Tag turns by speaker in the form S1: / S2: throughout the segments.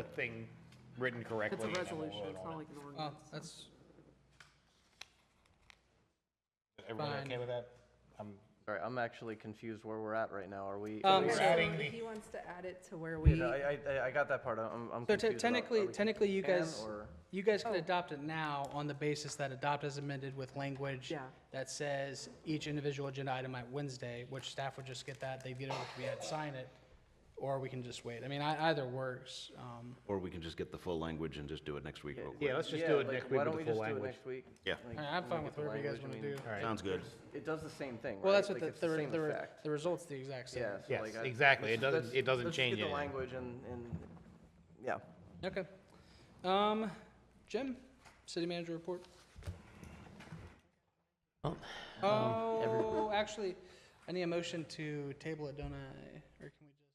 S1: thing written correctly.
S2: It's a
S1: and then we'll
S2: resolution,
S1: vote
S2: it's
S1: on
S2: not
S1: it.
S2: like an
S3: Well,
S2: ordinance.
S3: that's,
S1: Everyone
S3: fine.
S1: okay with that? Um,
S4: Sorry, I'm actually confused where we're at right now. Are we?
S3: Um,
S1: We're
S3: so-
S1: adding the,
S2: He wants to add it to where we,
S4: Yeah, no, I, I, I got that part. I'm, I'm
S3: so
S4: confused.
S3: te-
S4: about-
S3: technically,
S4: are we-
S3: technically, you
S4: can
S3: guys,
S4: or-
S3: you guys can adopt it now on the basis that adopt as amended with language
S2: Yeah.
S3: that says each individual agenda item at Wednesday, which staff would just get that, they'd get it over to me, I'd sign it, or we can just wait. I mean, I, either works. Um,
S5: Or we can just get the full language and just do it next week real quick.
S1: yeah, let's just
S4: Yeah,
S1: do it
S4: like,
S1: next week
S4: why
S1: with
S4: don't
S1: the
S4: we
S1: full
S4: just do it
S1: language.
S4: next week?
S5: Yeah.
S4: Like,
S3: I- I'm
S4: when we
S3: fine
S4: get
S3: with
S4: the
S3: whatever you guys
S4: language, I
S3: want to
S4: mean,
S3: do.
S5: Sounds good.
S4: It does the same thing, right?
S3: Well, that's
S4: Like,
S3: what the,
S4: it's the
S3: the,
S4: same
S3: the,
S4: effect.
S3: the result's the exact same.
S4: Yeah. so,
S1: Yes,
S4: like, I-
S1: exactly.
S4: let's
S1: It doesn't-
S4: just-
S1: it doesn't
S4: let's just
S1: change
S4: Get the
S1: anything.
S4: language and, and, yeah.
S3: Okay. Um, Jim, city manager report?
S6: um,
S3: Oh, actually, I need a motion to table it, don't I? Or can we just?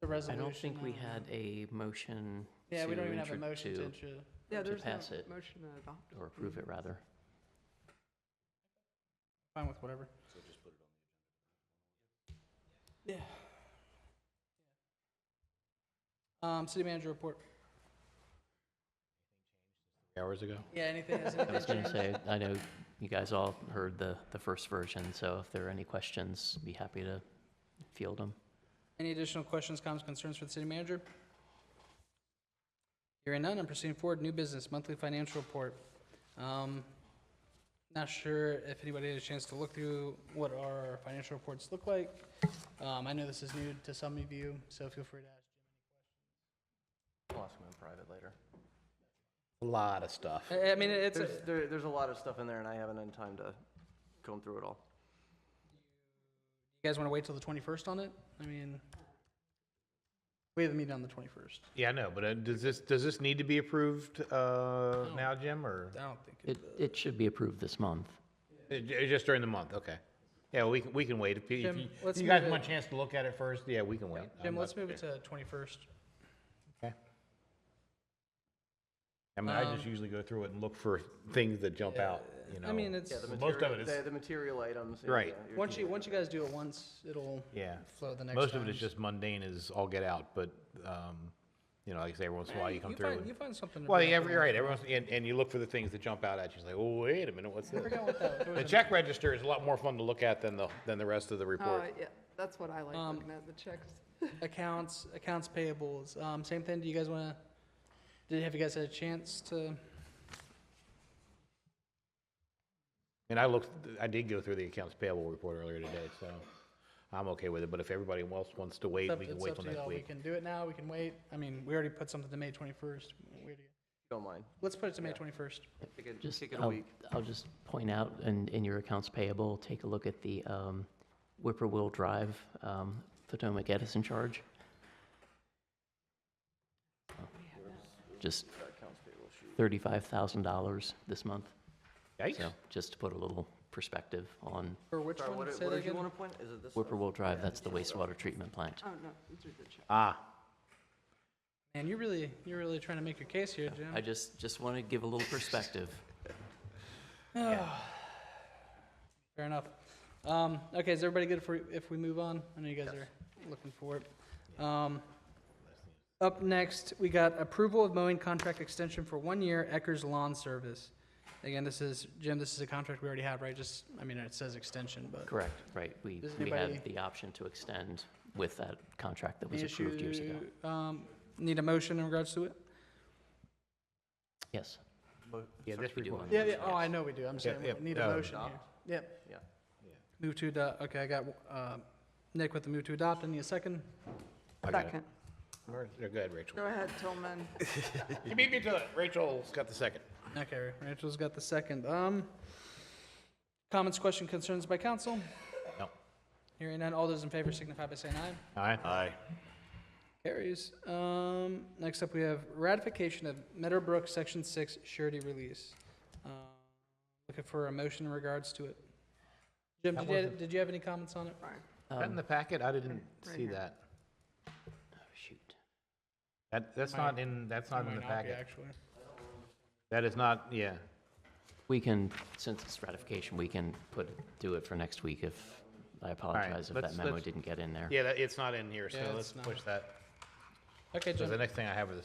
S3: The
S6: I
S3: resolution.
S6: don't think we
S3: uh,
S6: had a motion to
S3: Yeah, we don't even have a
S6: intro-
S3: motion to,
S6: to-
S3: intro-
S2: yeah,
S6: to
S2: there's no
S6: pass it.
S2: motion to adopt.
S6: or approve it, rather.
S3: fine with whatever. Yeah. Um, city manager report.
S1: Hours ago.
S3: Yeah, anything? has
S6: I was
S3: anything
S6: going to
S3: changed?
S6: say, I know you guys all heard the, the first version, so if there are any questions, be happy to field them.
S3: Any additional questions, comments, concerns for the city manager? Hearing none, I'm proceeding forward. New business, monthly financial report. Um, Not sure if anybody had a chance to look through what our financial reports look like. Um, I know this is new to some of you, so feel free to ask.
S4: I'll ask him in private later.
S7: A lot of stuff.
S3: I- I mean, it's, a-
S4: There's, there, there's a lot of stuff in there and I haven't had time to comb through it all.
S3: you guys want to wait till the 21st on it? I mean, we have a meeting on the 21st.
S1: Yeah, I know, but uh, does this, does this need to be approved uh, now, Jim, or
S3: I don't think,
S6: It, it should be approved this month.
S1: Uh, j- just during the month? Okay. Yeah, we can, we can wait. If you- if
S3: Jim,
S1: you
S3: let's
S1: if you guys
S3: move
S1: want
S3: it.
S1: a chance to look at it first, yeah, we can wait. I'm
S3: Jim,
S1: not-
S3: let's move it to 21st.
S1: Okay. I mean, I just
S3: Um,
S1: usually go through it and look for things that jump out, you know?
S3: I mean, it's,
S4: Yeah, the
S1: Most of
S4: material-
S1: it is-
S4: The, the material items. and,
S1: Right.
S4: uh, your
S3: once
S4: key
S3: you, once you guys do it once, it'll
S1: Yeah.
S3: flow the next time.
S1: Most of it is just mundane as all get out, but, um, you know, like I say, every once in a while you come through.
S3: Find,
S1: and-
S3: you find something. to
S1: Well,
S3: bring
S1: yeah,
S3: up
S1: every,
S3: every once
S1: right, every
S3: in a while.
S1: once, and, and you look for the things that jump out at you, it's like, oh, wait a minute, what's
S3: I
S1: this?
S3: forgot what that was.
S1: The check register is a lot more fun to look at than the, than the rest of the
S2: Oh,
S1: report.
S2: yeah, that's what I like
S3: Um,
S2: looking at, the checks.
S3: Accounts, accounts payables. Um, same thing. Do you guys want to? Did have you guys had a chance to?
S1: And I looked, I did go through the accounts payable report earlier today, so I'm okay with it, but if everybody else wants to
S3: it's
S1: wait,
S3: up-
S1: we can
S3: it's
S1: wait
S3: up
S1: till
S3: to y'all.
S1: next
S3: We
S1: week.
S3: can do it now. We can wait. I mean, we already put something to May twenty first.
S4: Don't mind.
S3: Let's put it to May twenty first.
S4: Kick it,
S6: Just,
S4: kick it a
S6: I'll,
S4: week.
S6: I'll just point out, in, in your accounts payable, take a look at the um, Whippoorwill Drive um, Potomac Edison charge. Just $35,000 this month.
S1: Yikes.
S6: So just to put a little perspective on
S3: Or which
S4: Sorry,
S3: one?
S4: what,
S3: Say
S4: what
S3: that
S4: did you
S3: again.
S4: want to point? Is it this? stuff?
S6: Whippoorwill Drive, that's the wastewater treatment plant.
S2: Oh, no, these are the checks.
S1: Ah,
S3: Man, you really, you're really trying to make your case here, Jim.
S6: I just, just want to give a little perspective.
S3: Fair enough. Um, okay, is everybody good for, if we move on? I know you guys are looking for it. Um, up next, we got approval of mowing contract extension for one year Eckers Lawn Service. Again, this is, Jim, this is a contract we already have, right? Just, I mean, it says extension, but.
S6: Correct, right. We,
S3: Does
S6: we had
S3: anybody-
S6: the option to extend with that contract that was
S3: Any
S6: approved years ago.
S3: issue, Um, need a motion in regards to it?
S6: Yes.
S1: yeah, this
S6: we do
S1: report.
S6: want-
S3: Yeah, yeah,
S6: Yes.
S3: oh, I know we do. I'm saying,
S1: yeah,
S3: we need a
S1: uh,
S3: motion here. Yep.
S4: Yeah.
S3: Move to, ado- okay, I got, uh, Nick with the move to adopt. Any a second?
S1: I got it.
S2: Second.
S1: Or- yeah, Go ahead, Rachel.
S2: Go ahead, Tillman.
S1: You beat me to it. Rachel's got the second.
S3: Okay, Rachel's got the second. Um, comments, question, concerns by council?
S1: No.
S3: Hearing none, all those in favor signify by saying aye.
S1: All right.
S5: Aye.
S3: Carries. Um, next up, we have ratification of Meadowbrook Section Six surety release. Uh, Looking for a motion in regards to it. Jim, did you, did you have any comments on it?
S1: That in the packet? I didn't see that.
S6: Shoot.
S1: That, that's not in, that's not in the
S3: Might not be,
S1: packet.
S3: Actually.
S1: That is not, yeah.
S6: We can, since it's ratification, we can put, do it for next week if, I apologize if
S1: let's-
S6: that memo
S1: let's-
S6: didn't get in there.
S1: Yeah, that, it's not in here, so
S3: Yeah,
S1: let's
S3: it's not.
S1: push that.
S3: Okay,
S1: So
S3: Jim.
S1: the next thing I have is